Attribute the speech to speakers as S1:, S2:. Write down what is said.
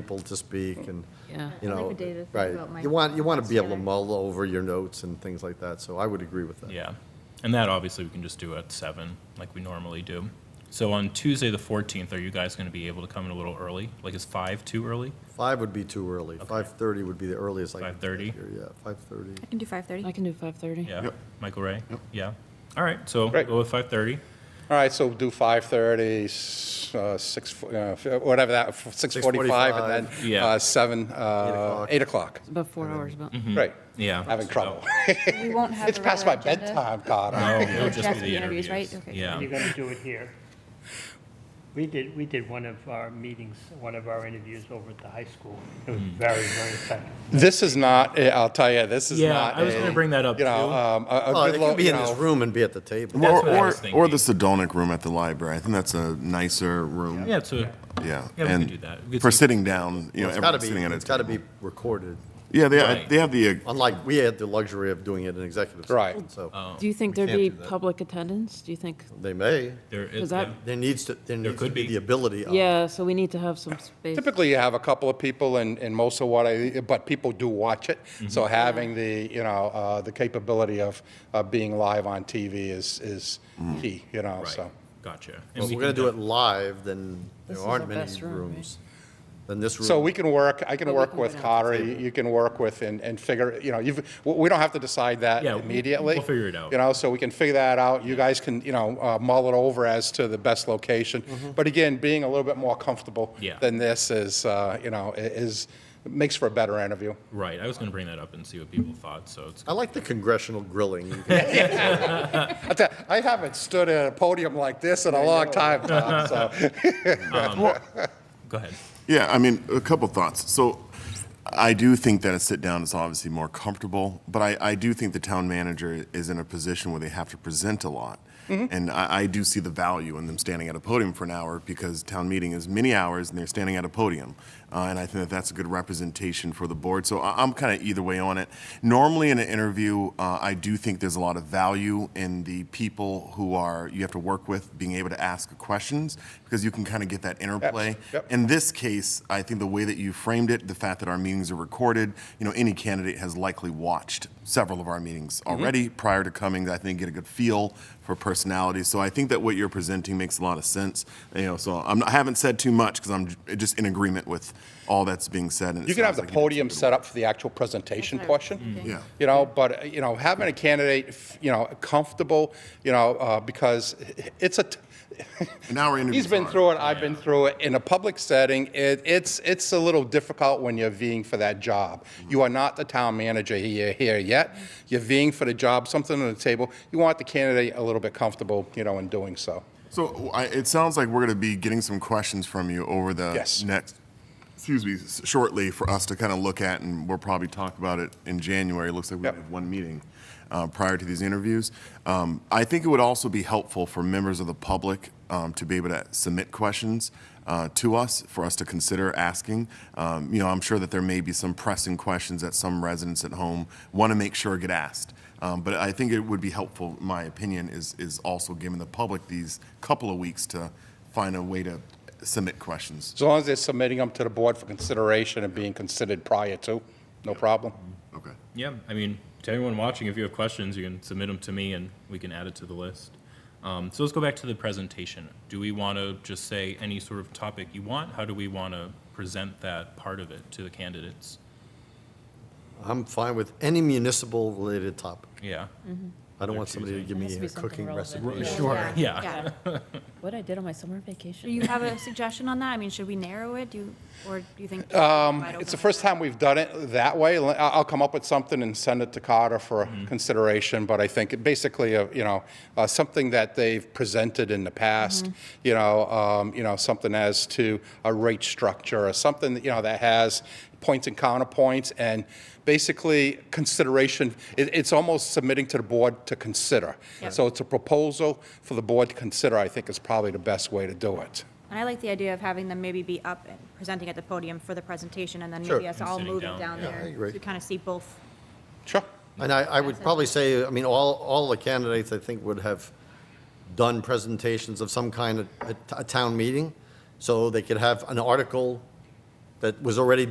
S1: people to speak and,
S2: Yeah.
S1: you
S3: I like
S1: know.
S3: what David said
S1: right.
S3: about my
S1: You want, you want to be able to
S3: scanner.
S1: mull over your notes and things like that, so I would agree with that.
S4: Yeah, and that obviously we can just do at seven, like we normally do. So on Tuesday, the fourteenth, are you guys gonna be able to come in a little early? Like, is five too early?
S1: Five would be too early. Five-thirty would be the earliest I could.
S4: 5:30?
S1: get here, Yeah, five-thirty.
S5: I can do five
S2: I
S5: thirty.
S2: can do 5:30.
S4: Yeah,
S6: Yep.
S4: Michael Ray?
S6: Yep.
S4: Yeah, all right, so
S6: Right.
S4: go with five-thirty.
S6: All right, so do 5:30, s- uh, 6, fo- uh, f- whatever that, f- 6:45, and then
S4: Yeah.
S6: uh, 7, uh,
S1: o'clock.
S6: 8 o'clock.
S2: It's about four hours, but.
S1: Mm-hmm.
S4: Mm-hmm.
S6: Right.
S4: Yeah.
S6: Having
S4: so-
S6: trouble.
S3: We won't have
S6: It's
S3: the regular
S6: past my
S3: agenda.
S6: bedtime, God.
S4: No,
S6: I-
S4: Oh, it'll just be
S5: That's
S4: the
S5: the interviews,
S4: interviews.
S5: right? Okay.
S4: Yeah,
S7: You're gonna do it here. We did, we did one of our meetings, one of our interviews over at the high school. It was very, very effective.
S6: This is not, a- I'll tell you, this is
S4: Yeah,
S6: not
S4: I was
S6: a-
S4: gonna bring that up,
S6: You know,
S4: too.
S6: um, a- a
S1: Well, it
S6: good
S1: could
S6: lo-
S1: be
S6: you
S1: in this
S6: know,
S1: room and be at the table.
S4: That's
S8: Or,
S4: what I
S8: or,
S4: was
S8: or the
S4: thinking.
S8: Sedonic room at the library. I think that's a nicer room.
S4: yeah, so,
S8: Yeah.
S4: Yeah, we could
S8: and
S4: do that. We could
S8: for
S4: sit-
S8: sitting down, you know,
S1: It's gotta
S8: everyone's
S1: be,
S8: sitting at a
S1: it's gotta be
S8: table.
S1: recorded,
S8: Yeah, they,
S4: Right.
S8: they have the, uh,
S1: unlike, we had the luxury of doing it in executive
S6: Right.
S1: session, so
S2: Do you think
S1: We
S2: there'd
S1: can't
S2: be
S1: do that.
S2: public attendance? Do you think?
S1: they may.
S4: there
S2: Does
S4: is,
S2: that-
S4: Oh. yeah.
S1: There needs to, there needs to
S4: could
S1: be
S4: be.
S1: the ability of.
S2: Yeah, so we need to have some space.
S6: Typically, you have a couple of people, and, and most of what I, but people do watch it.
S4: Mm-hmm.
S6: So having the, you know, uh, the capability of, of being live on TV is, is key, you know,
S4: Mm. right,
S6: so.
S4: gotcha.
S1: Well,
S4: And
S1: If
S4: we
S1: we're gonna
S4: can
S1: do it live, then there
S2: This is our
S1: aren't many
S2: best room, right?
S1: rooms. Then this room.
S6: So we can work, I
S2: But
S6: can
S2: we
S6: work
S2: can go
S6: with
S2: down to
S6: Carter, you you can work with and, and figure, you know, you've, w- we don't have to decide that
S4: Yeah, we'll-
S6: immediately.
S4: we'll figure it out.
S6: You know, so we can figure that out, you guys can, you know, uh, mull it over as to the best location. But again, being a little bit more comfortable
S4: Mm-hmm. Yeah.
S6: than this is, uh, you know, i- is, makes for a better interview.
S4: Right, I was gonna bring that up and see what people thought, so it's,
S1: I like the congressional grilling. You can-
S6: I tell- I haven't stood at a podium like this in a long time, Tom, so.
S4: Um, go ahead.
S8: yeah, I mean, a couple thoughts. So I do think that a sit down is obviously more comfortable, but I, I do think the town manager is in a position where they have to present a lot. And I, I do see the value in them standing at a podium for an hour because town meeting is many hours and they're standing at a podium. Uh, and I think that that's a good representation for the board. So I, I'm kind of either way on it. Normally in an interview, uh, I do think there's a lot of value in the people who are you have to work with being able to ask questions because you can kind of get that interplay.
S6: yep.
S8: In this case, I think the way that you framed it, the fact that our meetings are recorded, you know, any candidate has likely watched several of our meetings
S6: Mm-hmm.
S8: already prior to coming. I think get a good feel for personality. So I think that what you're presenting makes a lot of sense. You know, so I'm, I haven't said too much because I'm j- just in agreement with all that's being said. And it
S6: You can have
S8: sounds
S6: the
S8: like you did
S6: podium
S8: some
S6: set up for the actual presentation
S4: Mm-hmm.
S6: portion.
S8: Yeah.
S6: You know, but, uh, you know, having a candidate, f- you know, comfortable, you know, uh, because it's a, t-
S8: good- An hour interview.
S6: he's been through it, I've been through it. In a public setting, it, it's, it's a little difficult when you're vying for that job. You are not the town manager here, here yet. You're vying for the job, something on the table. You want the candidate a little bit comfortable, you know, in doing so.
S8: So I, it sounds like we're going to be getting some questions from you over the
S6: Yes.
S8: next, excuse me, s- shortly for us to kind of look at, and we'll probably talk about it in January. It looks like we
S6: Yep.
S8: have one meeting uh, prior to these interviews. Um, I think it would also be helpful for members of the public um, to be able to submit questions uh, to us for us to consider asking. Um, you know, I'm sure that there may be some pressing questions that some residents at home want to make sure get asked. Um, But I think it would be helpful, my opinion, is, is also giving the public these couple of weeks to find a way to submit questions.
S6: As long as they're submitting them to the board for consideration and being considered prior to, no problem.
S8: Okay.
S4: Yeah, I mean, to everyone watching, if you have questions, you can submit them to me and we can add it to the list. Um, so let's go back to the presentation. Do we want to just say any sort of topic you want? How do we want to present that part of it to the candidates?
S1: I'm fine with any municipal related topic.
S4: Yeah.
S1: I don't want somebody to give
S2: It has
S1: me
S2: to be
S1: a
S2: something
S1: cooking
S2: relevant.
S1: recipe.
S4: Sure. Yeah.
S5: Yeah.
S2: What I did on my summer
S5: Do
S2: vacation.
S5: you have a suggestion on that? I mean, should we narrow it? Do you, or do you think? wide
S6: Um, It's
S5: open?
S6: the first time we've done it that way. L- I- I'll come up with something and send it to Carter for consideration, but I think it basically, uh, you know, uh, something that they've presented in the past, you know, um, you know, something as to a rate structure or something, that, you know, that has points and counterpoints and basically consideration, it, it's almost submitting to the board to consider. So it's a proposal for the board to consider, I think is probably the best way to do it.
S5: And I like the idea of having them maybe be up and presenting at the podium for the presentation, and then
S1: Sure.
S5: maybe us
S4: And
S5: all
S4: sitting
S5: moving down
S4: down, yeah.
S1: I
S5: there.
S1: agree.
S5: To kind of see both.
S6: Sure.
S1: And I, I would probably say, I mean, all, all the candidates, I think, would have done presentations of some kind at a t- a town meeting, so they could have an article that was already